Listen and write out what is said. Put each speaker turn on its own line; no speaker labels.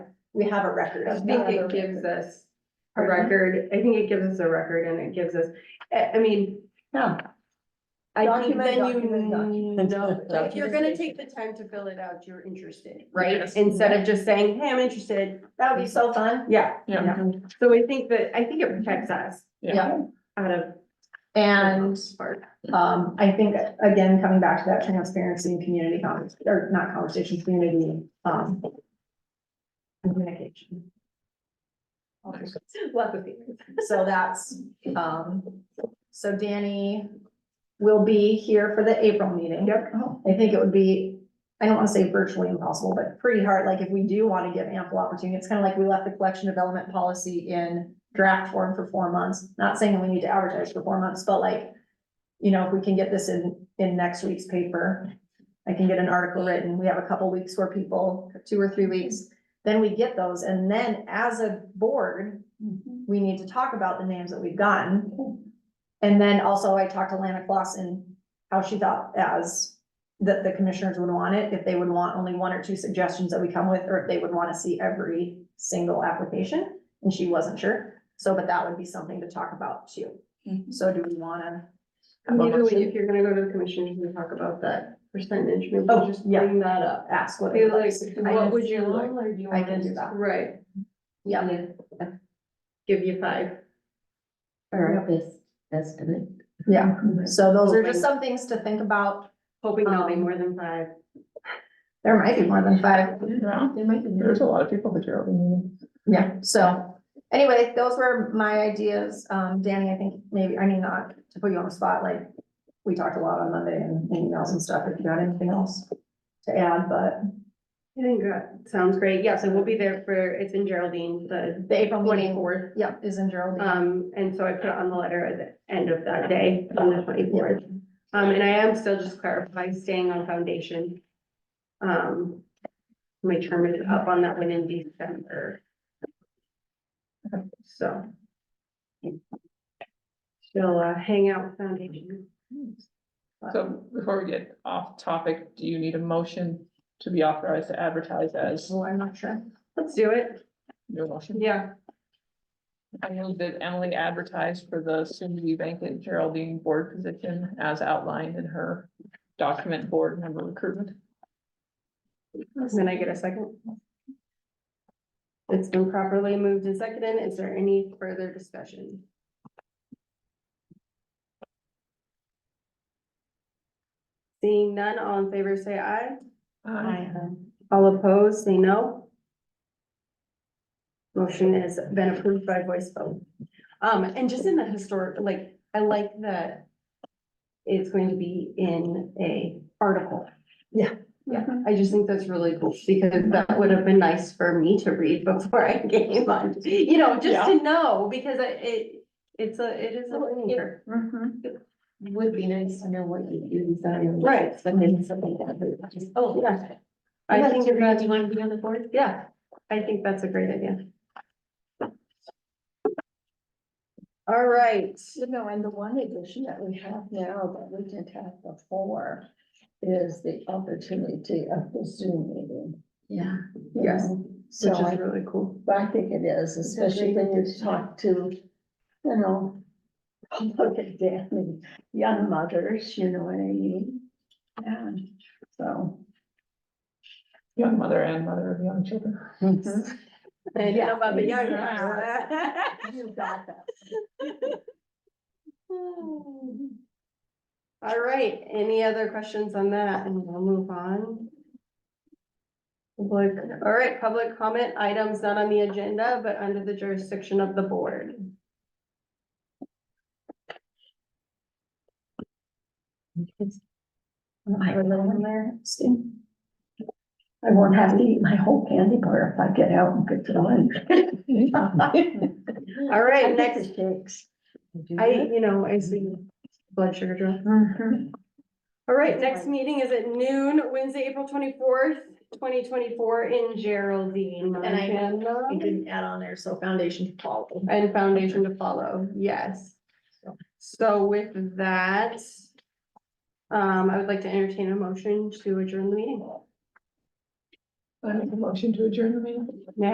we have a record
I
of
think
that.
it gives us a
Pardon?
record, I think it gives us a record and it gives us, I, I mean.
Yeah.
I think
Document,
then you
document, document.
know, like, if you're gonna take the time to fill it out, you're interested, right? Instead of just saying, hey, I'm interested,
That would be so fun.
yeah,
Yeah,
so I think that, I think it protects us
yeah,
out of.
And, um, I think, again, coming back to that transparency and community convers, or not conversation, community, um, communication. Lots of feelings. So that's, um, so Danny will be here for the April meeting.
Yep.
I think it would be, I don't wanna say virtually impossible, but pretty hard, like if we do wanna give ample opportunity, it's kinda like we left the collection development policy in draft form for four months, not saying we need to advertise for four months, but like, you know, if we can get this in, in next week's paper, I can get an article written, we have a couple weeks where people, two or three weeks, then we get those, and then as a board, we need to talk about the names that we've gotten. And then also I talked to Lana Clausen, how she thought as that the commissioners would want it, if they would want only one or two suggestions that we come with, or if they would want to see every single application, and she wasn't sure. So, but that would be something to talk about too.
Mm-hmm.
Mhm.
So do we wanna?
Maybe we- if you're gonna go to the commissioners and talk about that percentage, maybe
Oh,
just
yeah.
bring that up.
Ask what.
Be
they
like,
I
what
can
would you
do
like?
it.
Or do you
I
want
can
us-
do that.
Right,
Yeah,
give you five.
Or this estimate.
yeah. So those are just some things to think about.
Hoping there'll be
Um,
more than five.
There might be more than five.
yeah. There's a lot of people that you're opening.
Yeah, so anyway, those were my ideas. Um, Danny, I think maybe, I mean, not to put you on the spot, like we talked a lot on Monday and emails and stuff. If you got anything else to add, but
I think that sounds great. Yeah, so we'll be there for, it's in Geraldine, the
the April meeting,
twenty-fourth.
yeah, is in Geraldine.
Um, and so I put it on the letter at the end of that day, on the twenty-fourth. Um, and I am still just clarifying, staying on foundation. Um, my term is up on that one in December. So. She'll, uh, hang out with foundation.
So before we get off topic, do you need a motion to be authorized to advertise as
So I'm not sure.
Let's do it.
your motion?
Yeah.
I move that Emily advertised for the soon to be vacant Geraldine board position as outlined in her document board member recruitment.
Can I get a second? It's been properly moved and seconded. Is there any further discussion? Seeing none, all in favor, say aye.
Aye.
All opposed, say no. Motion has been approved by voice vote. Um, and just in the historic, like, I like that it's going to be in a article.
Yeah.
Yeah,
mm-hmm,
I just think that's really cool because that would have been nice for me to read before I came on, you know, just to know, because I- it, it's a, it is a learning
mm-hmm.
Would be nice to know what you do design.
Right.
But then something that, but just, oh,
Oh, yeah. I think Do you want to be on the board? Yeah, I think that's a great idea. All right.
You know, and the one addition that we have now that we didn't have before is the opportunity of the Zoom meeting.
yeah.
you
Yes,
know? So
Which is
I,
really cool.
I think it is, especially when you talk to, you know, look at Danny, young mothers, you know what I mean? And so.
Young Uh, mother and mother of young children.
I
Yeah.
know about the young
Yeah.
guys.
You got that.
All right, any other questions on that? And we'll move on. Public, all right, public comment items not on the agenda, but under the jurisdiction of the board.
I have a little one there, see? I won't have to eat my whole candy bar if I get out and get to lunch.
All right,
And
next,
next shakes.
I, you know, I see blood sugar drop.
Mm-hmm.
All right, next meeting is at noon, Wednesday, April twenty-fourth, twenty twenty-four in Geraldine,
And I-
Montana.
You didn't add on there, so foundation follow.
And foundation to follow, yes. So with that, um, I would like to entertain a motion to adjourn the meeting.
I make a motion to adjourn the meeting.